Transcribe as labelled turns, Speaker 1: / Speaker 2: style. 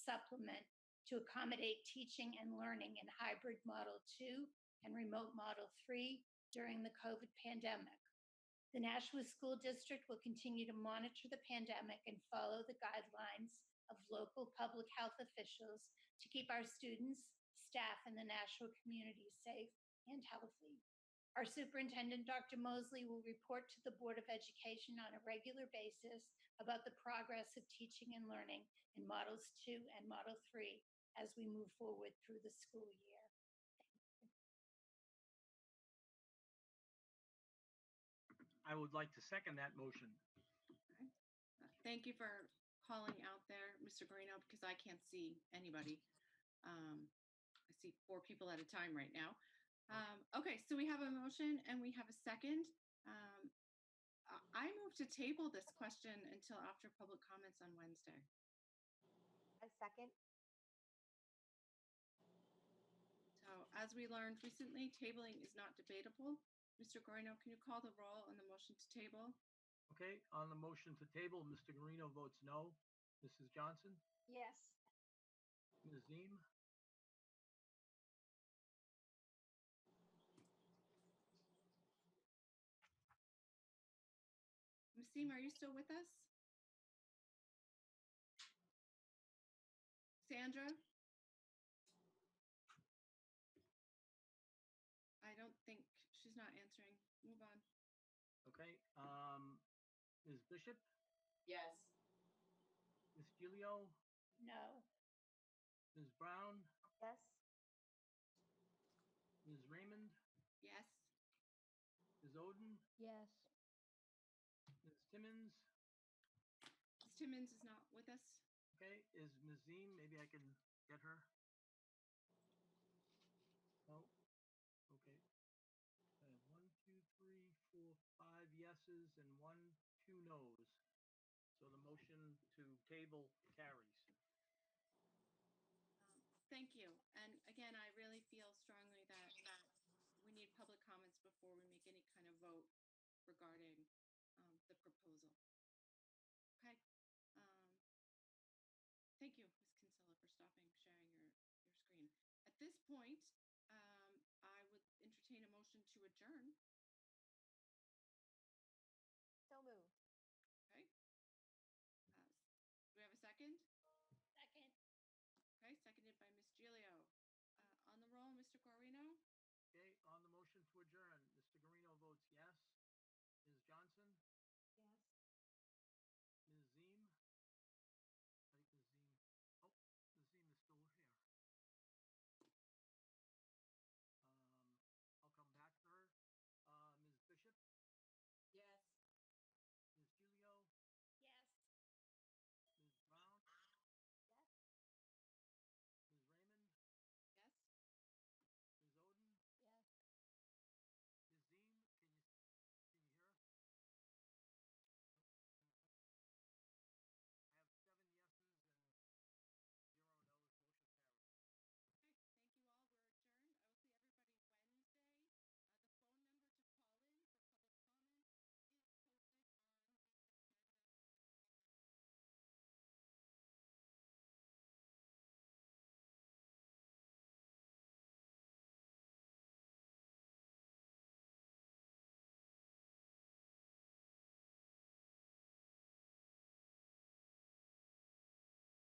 Speaker 1: supplement to accommodate teaching and learning in hybrid Model 2 and remote Model 3 during the COVID pandemic. The Nashua School District will continue to monitor the pandemic and follow the guidelines of local public health officials to keep our students, staff, and the Nashua community safe and healthy. Our superintendent, Dr. Mosley, will report to the Board of Education on a regular basis about the progress of teaching and learning in Models 2 and Model 3 as we move forward through the school year.
Speaker 2: I would like to second that motion.
Speaker 3: Uh, Thank you for calling out there, Mr. Guarino, because I can't see anybody. Um, I see four people at a time right now. Um, okay, so we have a motion and we have a second. Um, I- I move to table this question until after public comments on Wednesday.
Speaker 4: I second.
Speaker 3: So as we learned recently, tabling is not debatable. Mr. Guarino, can you call the roll on the motion to table?
Speaker 2: Okay, on the motion to table, Mr. Guarino votes no. Mrs. Johnson,
Speaker 1: Yes.
Speaker 2: Ms. Ziem,
Speaker 3: Museem, are you still with us? Sandra? I don't think, she's not answering. Move on.
Speaker 2: okay, um, Ms. Bishop,
Speaker 5: Yes.
Speaker 2: Ms. Gilio,
Speaker 1: No.
Speaker 2: Ms. Brown,
Speaker 4: Yes.
Speaker 2: Ms. Raymond,
Speaker 3: Yes,
Speaker 2: Ms. Oden,
Speaker 4: Yes.
Speaker 2: Ms. Timmons,
Speaker 3: Ms. Timmons is not with us.
Speaker 2: okay, is Ms. Ziem, maybe I can get her? No, okay. I have one, two, three, four, five yeses and one, two nos. So the motion to table carries.
Speaker 3: Um, Thank you. And again, I really feel strongly that uh, we need public comments before we make any kind of vote regarding um, the proposal. Okay. um, Thank you, Ms. Kinsella, for stopping, sharing your, your screen. At this point, um, I would entertain a motion to adjourn.
Speaker 4: So moved.
Speaker 3: Okay. Uh, Do we have a second?
Speaker 1: Second.
Speaker 3: Okay, seconded by Ms. Gilio. Uh, On the roll, Mr. Guarino?
Speaker 2: Okay, on the motion to adjourn, Mr. Guarino votes yes. Ms. Johnson, oh, Um, Uh,